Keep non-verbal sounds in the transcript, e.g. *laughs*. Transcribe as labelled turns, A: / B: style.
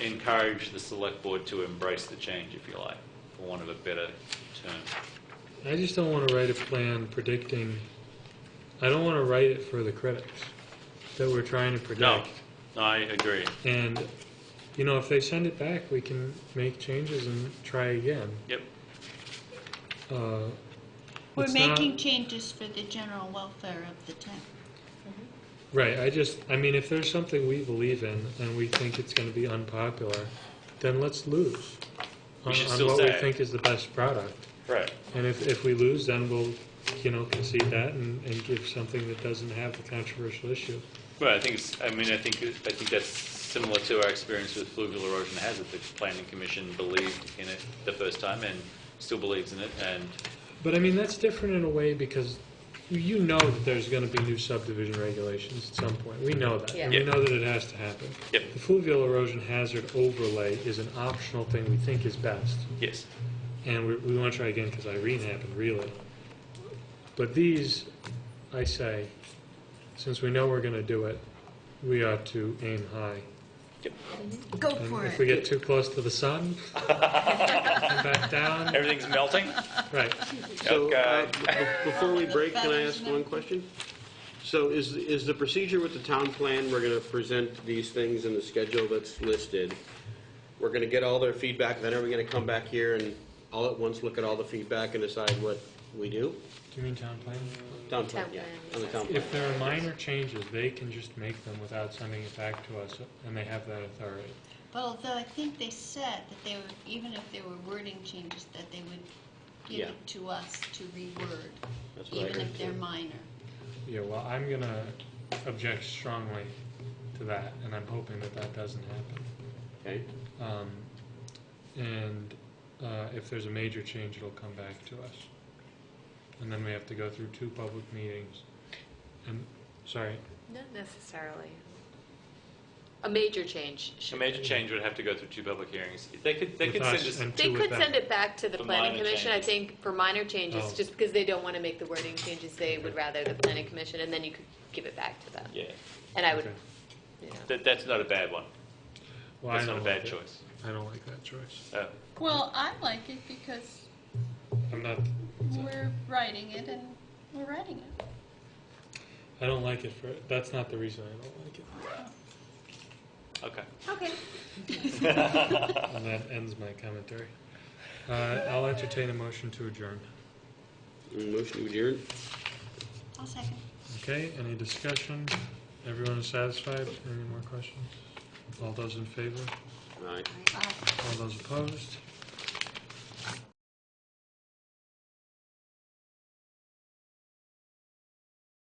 A: encourage the select board to embrace the change, if you like, for want of a better term.
B: I just don't want to write a plan predicting, I don't want to write it for the critics that we're trying to predict.
A: No, I agree.
B: And, you know, if they send it back, we can make changes and try again.
A: Yep.
B: Uh,
C: We're
B: it's not-
C: making changes for the general welfare of the town.
B: Right, I just, I mean, if there's something we believe in and we think it's going to be unpopular, then let's lose.
A: We
B: on-
A: should still
B: On what
A: say
B: we
A: it.
B: think is the best product.
A: Right.
B: And if, if we lose, then we'll, you know, concede that and, and give something that doesn't have the controversial issue.
A: Well, I think it's, I mean, I think, I think that's similar to our experience with fluvial erosion hazard. The planning commission believed in it the first time and still believes in it, and
B: But I mean, that's different in a way because you know that there's going to be new subdivision regulations at some point. We know that. And we
A: Yeah.
B: know that it has to happen.
A: Yep.
B: The fluvial erosion hazard overlay is an optional thing we think is best.
A: yes,
B: And we, we want to try again because Irene happened, really. But these, I say, since we know we're going to do it, we ought to aim high.
C: Go
B: And
C: for
B: if we
C: it.
B: get too close to the sun, *laughs* and back down,
A: everything's melting.
B: right.
D: So, uh,
A: Okay.
D: b- before we break, can I ask
C: Better, isn't
D: one
C: it?
D: question? So is, is the procedure with the town plan, we're going to present these things in the schedule that's listed, we're going to get all their feedback, then are we going to come back here and all at once look at all the feedback and decide what we do?
B: Do you mean town plan?
D: Town plan,
E: Town
D: yeah,
E: plan,
D: on the town plan.
B: If there are minor changes, they can just make them without sending it back to us, and they have that authority.
C: But although I think they said that they would, even if there were wording changes, that they would give
D: Yeah.
C: it to us to reword,
D: That's what I
C: even
D: heard,
C: if they're
D: too.
C: minor.
B: Yeah, well, I'm gonna object strongly to that, and I'm hoping that that doesn't happen.
D: Okay,
B: Um, And uh, if there's a major change, it'll come back to us. And then we have to go through two public meetings. And, sorry,
E: Not necessarily. A major change.
A: A
E: should-
A: major change would have to go through two public hearings. They could, they
B: with
A: could send
B: us
A: us,
B: and
E: They
B: two with
E: could send
B: them.
E: it back to the
A: For
E: planning
A: minor
E: commission, I
A: changes.
E: think, for minor
B: Oh.
E: changes, just because they don't want to make the wording changes, they would rather the planning commission, and then you could give it back to them.
A: yeah,
E: And I
B: Okay.
E: would, you know.
A: that, that's not a bad one.
B: Well, I
A: That's not a
B: don't
A: bad
B: like it.
A: choice.
B: I don't like that choice.
A: Uh,
C: Well, I like it because
B: I'm not,
C: we're writing it and we're writing it.
B: I don't like it for, that's not the reason I don't like it.
A: Okay.
E: Okay.
B: And that ends my commentary. Uh, I'll entertain a motion to adjourn.
D: motion to adjourn?
C: I'll second.
B: Okay, any discussion? Everyone is satisfied? Any more questions? All those in favor?
D: Aye.
C: Aye.
B: All those opposed?